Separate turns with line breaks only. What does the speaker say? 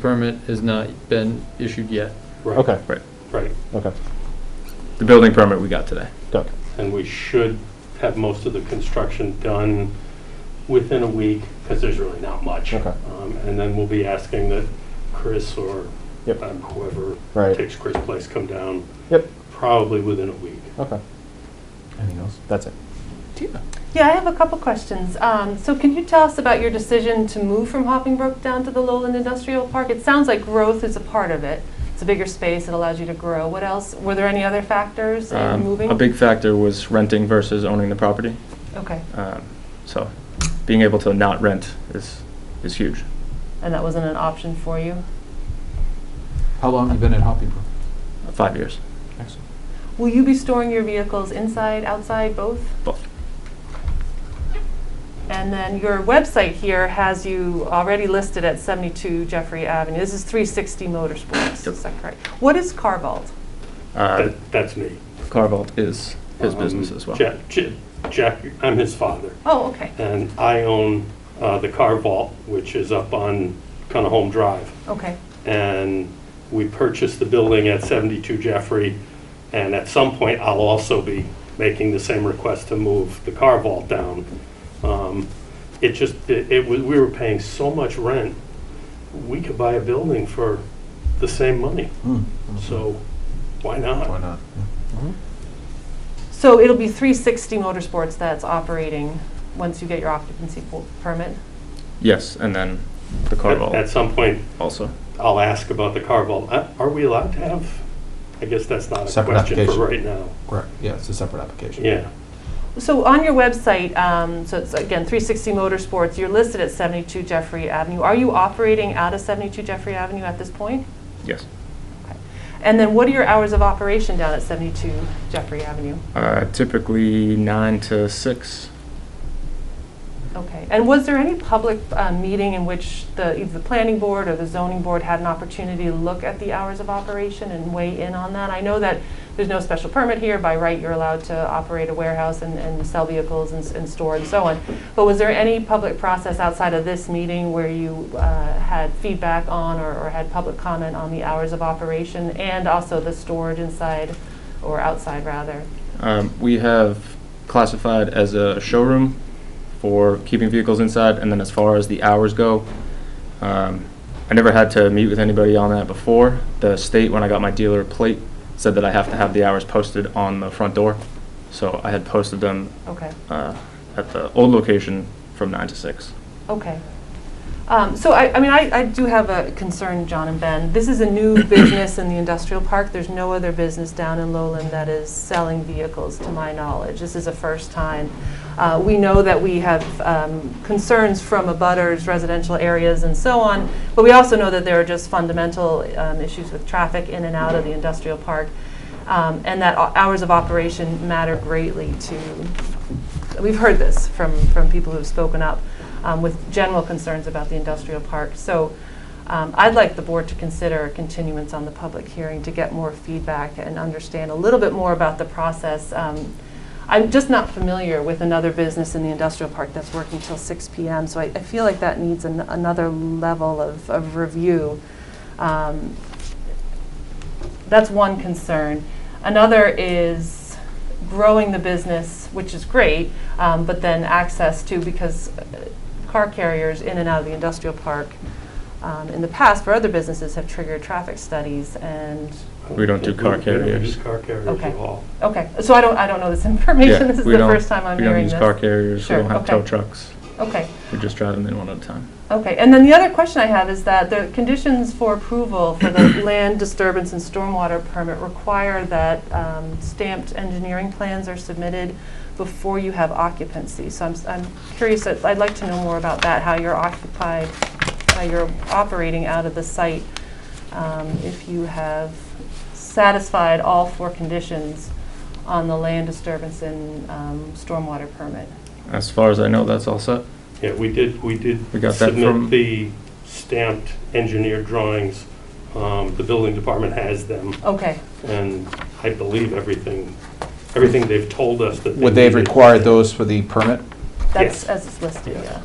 permit has not been issued yet.
Right,
Okay,
Right,
okay,
The building permit we got today.
got it.
and we should have most of the construction done within a week, because there's really not much.
Okay.
Um, And then we'll be asking that Chris or
Yep.
um, whoever
Right.
takes Chris' place come down,
Yep,
probably within a week.
okay. Anything else? That's it.
Yeah, I have a couple questions. Um, So can you tell us about your decision to move from Hopping Brook down to the Lowland Industrial Park? It sounds like growth is a part of it. It's a bigger space, it allows you to grow. What else? Were there any other factors in
Um,
moving?
A big factor was renting versus owning the property.
Okay,
Um, So being able to not rent is, is huge.
and that wasn't an option for you?
How long have you been at Hoppy Brook?
uh, Five years,
Excellent.
Will you be storing your vehicles inside, outside, both?
both.
And then your website here has you already listed at 72 Jeffrey Avenue. This is 360 Motorsports,
Yep.
is that correct? What is Carvalt?
Uh,
That- That's me.
Carvalt is his
Um,
business as well.
Jack- J- Jack, I'm his father,
Oh, okay,
and I own uh, the car vault, which is up on kind of home drive.
okay.
and we purchased the building at 72 Jeffrey, and at some point, I'll also be making the same request to move the car vault down. Um, It just, it it was, we were paying so much rent, we could buy a building for the same money,
Hmm.
so why
Why
not?
not?
So it'll be 360 Motorsports that's operating once you get your occupancy po- permit?
Yes, and then the
At at
Carvalt
some point,
also.
I'll ask about the car vault. Uh, Are we allowed to have, I guess that's not a
Separate
question for
application.
right now.
Correct, yeah, it's a separate application.
Yeah,
So on your website, um, so it's again, 360 Motorsports, you're listed at 72 Jeffrey Avenue. Are you operating out of 72 Jeffrey Avenue at this point?
Yes.
And then what are your hours of operation down at 72 Jeffrey Avenue?
Uh, Typically nine to six.
Okay, and was there any public uh, meeting in which the, either the planning board or the zoning board had an opportunity to look at the hours of operation and weigh in on that? I know that there's no special permit here, by right you're allowed to operate a warehouse and, and sell vehicles and, s- and store and so on. But was there any public process outside of this meeting where you uh, had feedback on or, or had public comment on the hours of operation and also the storage inside or outside rather?
Um, We have classified as a showroom for keeping vehicles inside, and then as far as the hours go, um, I never had to meet with anybody on that before. The state, when I got my dealer plate, said that I have to have the hours posted on the front door, so I had posted them
Okay.
uh, at the old location from nine to six.
Okay. Um, So I, I mean, I, I do have a concern, John and Ben. This is a new business in the industrial park. There's no other business down in Lowland that is selling vehicles, to my knowledge. This is a first time. Uh, We know that we have um, concerns from abutters, residential areas and so on, but we also know that there are just fundamental um, issues with traffic in and out of the industrial park, um, and that o- hours of operation matter greatly to we've heard this from, from people who've spoken up um, with general concerns about the industrial park. So um, I'd like the board to consider a continuance on the public hearing to get more feedback and understand a little bit more about the process. Um, I'm just not familiar with another business in the industrial park that's working till 6 PM, so I, I feel like that needs an, another level of, of review. Um, that's one concern. Another is growing the business, which is great, um, but then access to, because uh, car carriers in and out of the industrial park um, in the past for other businesses have triggered traffic studies and,
We don't do car
We don't
carriers.
use car carriers
Okay.
at all.
okay, so I don't, I don't know this information. This is
we
the
don't-
first time I'm
We don't
hearing
use
this.
car carriers, we
Sure,
don't have
okay.
tow trucks,
Okay.
we just drive them in one at a time.
Okay, and then the other question I have is that the conditions for approval for the land disturbance and stormwater permit require that um, stamped engineering plans are submitted before you have occupancy. So I'm, s- I'm curious, I'd I'd like to know more about that, how you're occupied, how you're operating out of the site, um, if you have satisfied all four conditions on the land disturbance and um, stormwater permit.
As far as I know, that's all set.
Yeah, we did, we did
We got that from-
submit the stamped engineered drawings. Um, The building department has them,
Okay,
and I believe everything, everything they've told us that they
Would they have
needed.
required those for the permit?
that's
Yes.
as it's listed,
Yes.
yeah.